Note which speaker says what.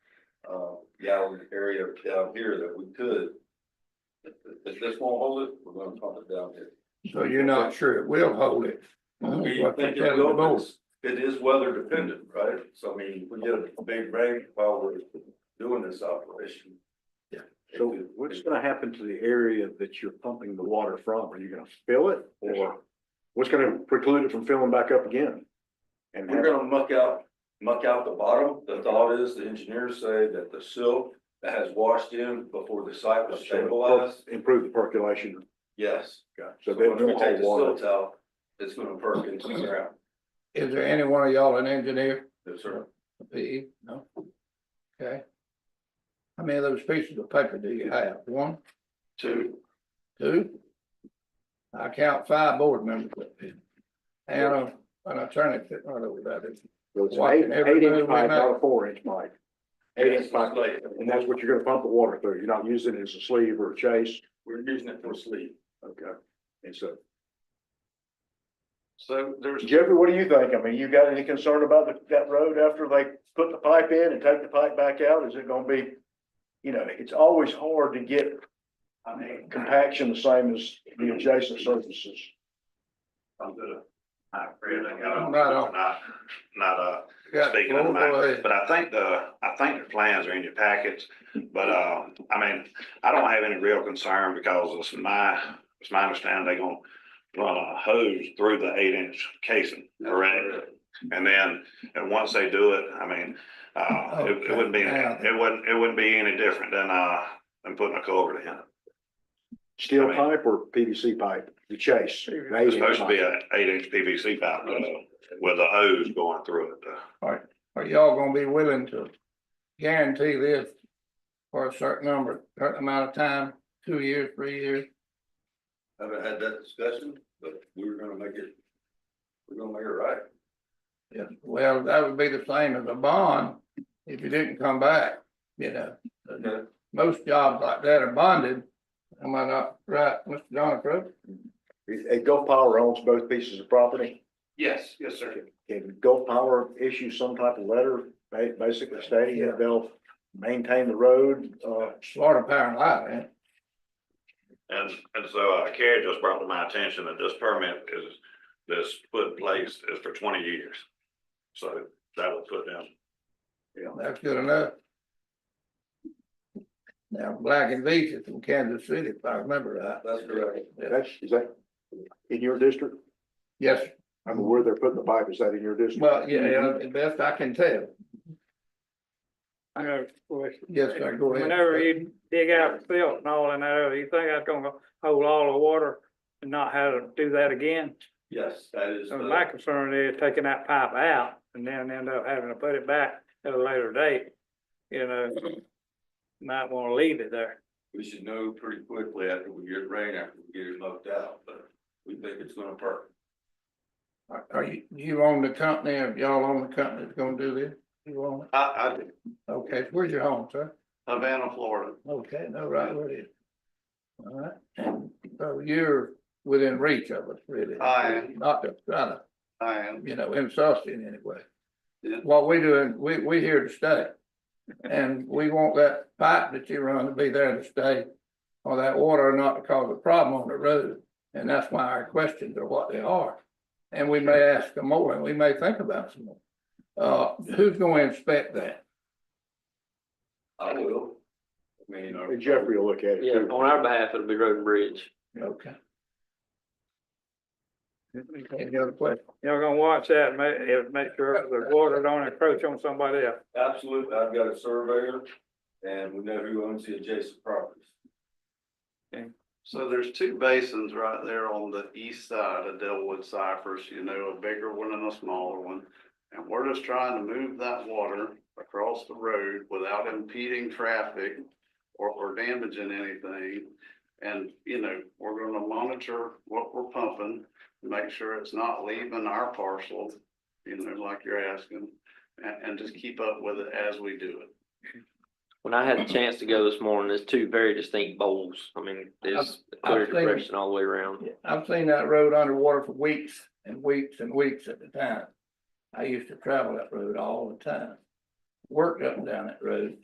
Speaker 1: um, gallon area down here that we could. If this won't hold it, we're gonna pump it down here.
Speaker 2: So you're not sure it will hold it.
Speaker 1: Do
Speaker 2: That's
Speaker 1: you
Speaker 2: what they're
Speaker 1: think it
Speaker 2: telling the
Speaker 1: will?
Speaker 2: board.
Speaker 1: It's- It is weather dependent, right? So I mean, we get a big rain while we're doing this operation.
Speaker 2: Yeah.
Speaker 1: So
Speaker 3: So what's gonna happen to the area that you're pumping the water from? Are you gonna fill it or what's gonna preclude it from filling back up again? And
Speaker 1: we're gonna muck out, muck out the bottom. The thought is, the engineers say that the silt that has washed in before the site was stabilized,
Speaker 3: Improve the percolation.
Speaker 1: yes.
Speaker 3: So
Speaker 1: So
Speaker 3: they
Speaker 1: when we
Speaker 3: won't
Speaker 1: take
Speaker 3: hold
Speaker 1: the
Speaker 3: water.
Speaker 1: silt out, it's gonna perk into the ground.
Speaker 2: Is there any one of y'all an engineer?
Speaker 1: Yes, sir.
Speaker 2: P? No? Okay. How many of those pieces of paper do you have? One,
Speaker 1: Two,
Speaker 2: two? I count five board members. up here. And a- an attorney sitting right over there.
Speaker 3: So it's an
Speaker 2: Watching
Speaker 3: eight, eight
Speaker 2: everybody
Speaker 3: inch pipe,
Speaker 2: right now.
Speaker 3: not a four inch pipe. Eight inch pipe, and that's what you're gonna pump the water through. You're not using it as a sleeve or a chase.
Speaker 1: we're using it for sleep.
Speaker 3: Okay. And so,
Speaker 1: So there's.
Speaker 3: Jeffrey, what do you think? I mean, you got any concern about the- that road after they put the pipe in and take the pipe back out? Is it gonna be? You know, it's always hard to get
Speaker 1: I mean,
Speaker 3: compaction the same as the adjacent surfaces.
Speaker 4: I'm good. I agree, I got on,
Speaker 2: Right on.
Speaker 4: not, not, uh,
Speaker 2: Got
Speaker 4: speaking of the
Speaker 2: four, go
Speaker 4: matter,
Speaker 2: ahead.
Speaker 4: but I think the, I think the plans are in your packets. But, uh, I mean, I don't have any real concern because it's my, it's my understanding they are gonna run a hose through the eight inch casing, correct? And then, and once they do it, I mean, uh, it, it wouldn't be,
Speaker 2: Okay.
Speaker 4: it wouldn't, it wouldn't be any different than, uh, than putting a culvert in. I
Speaker 3: Steel
Speaker 4: mean-
Speaker 3: pipe or PVC pipe, the chase. the eight
Speaker 4: It's
Speaker 3: inch
Speaker 4: supposed to be
Speaker 3: pipe.
Speaker 4: an eight inch PVC pipe uh, with a hose going through it. uh,
Speaker 2: Are y'all gonna be willing to guarantee this for a certain number, certain amount of time, two years, three years?
Speaker 1: Haven't had that discussion, but we were gonna make it, we're gonna make it right.
Speaker 2: Yeah, well, that would be the same as a bond if you didn't come back, you know.
Speaker 1: Okay.
Speaker 2: Most jobs like that are bonded. Am I not right, Mr. John Crook?
Speaker 3: And Gulf Power owns both pieces of property.
Speaker 4: Yes, yes, sir.
Speaker 3: Can Gulf Power issue some type of letter, ba- basically stating that they'll maintain the road, uh,
Speaker 2: Florida Power and Light, man.
Speaker 4: And, and so uh, Carrie just brought to my attention that this permit is, this put in place is for twenty years. So that would put them,
Speaker 2: That's good enough. Now, Black and Veatch is from Kansas City, if I remember right.
Speaker 1: That's correct.
Speaker 3: that's, is that in your district?
Speaker 2: Yes,
Speaker 3: I mean, where they're putting the pipe, is that in your district?
Speaker 2: well, yeah,
Speaker 1: Mm-hmm.
Speaker 2: yeah, the best I can tell.
Speaker 5: I got a question.
Speaker 2: Yes, sir, go ahead.
Speaker 5: Whenever you dig out silt and all in that, area, you think that's gonna hold all the water and not have to do that again?
Speaker 1: Yes, that is. uh,
Speaker 5: So
Speaker 1: the-
Speaker 5: my concern is taking that pipe out and then end up having to put it back at a later date, you know? Might wanna leave it there.
Speaker 1: We should know pretty quickly after we get rain, after we get it mucked out, but we think it's gonna perk.
Speaker 2: Are- Are you, you own the company, or y'all own the company that's gonna do this? You own it?
Speaker 4: I,
Speaker 2: Okay, where's your home, sir?
Speaker 4: I, Havana, Florida.
Speaker 2: Okay, no, right where it is. All right, and so you're within reach of us, really.
Speaker 4: I am.
Speaker 2: Not to try to,
Speaker 4: I am.
Speaker 2: you know, insult you in any way.
Speaker 4: Yeah.
Speaker 2: What we doing, we, we here to stay. And we want that pipe that you run to be there to stay, or that water not to cause a problem on the road. And that's why our questions are what they are. And we may ask them more, and we may think about some more. Uh, who's gonna inspect that?
Speaker 1: I will. I mean, uh, our-
Speaker 3: And Jeffrey will look at it.
Speaker 6: Yeah,
Speaker 3: too.
Speaker 6: on our behalf, it'll be road and bridge.
Speaker 2: Okay. Any other questions?
Speaker 5: Y'all gonna watch that, and make, if- make sure the water don't encroach on somebody else.
Speaker 1: absolutely, I've got a surveyor and we know who owns the adjacent properties.
Speaker 7: So there's two basins right there on the east side of Delwood Cypress, you know, a bigger one and a smaller one. And we're just trying to move that water across the road without impeding traffic or, or damaging anything. And, you know, we're gonna monitor what we're pumping, make sure it's not leaving our parcel, you know, like you're asking. And, and just keep up with it as we do it.
Speaker 6: When I had the chance to go this morning, there's two very distinct bowls. I mean, there's clear
Speaker 2: I've seen it.
Speaker 6: depression all the way around.
Speaker 2: Yeah, I've seen that road underwater for weeks and weeks and weeks at a time. I used to travel that road all the time. Worked up and down that road.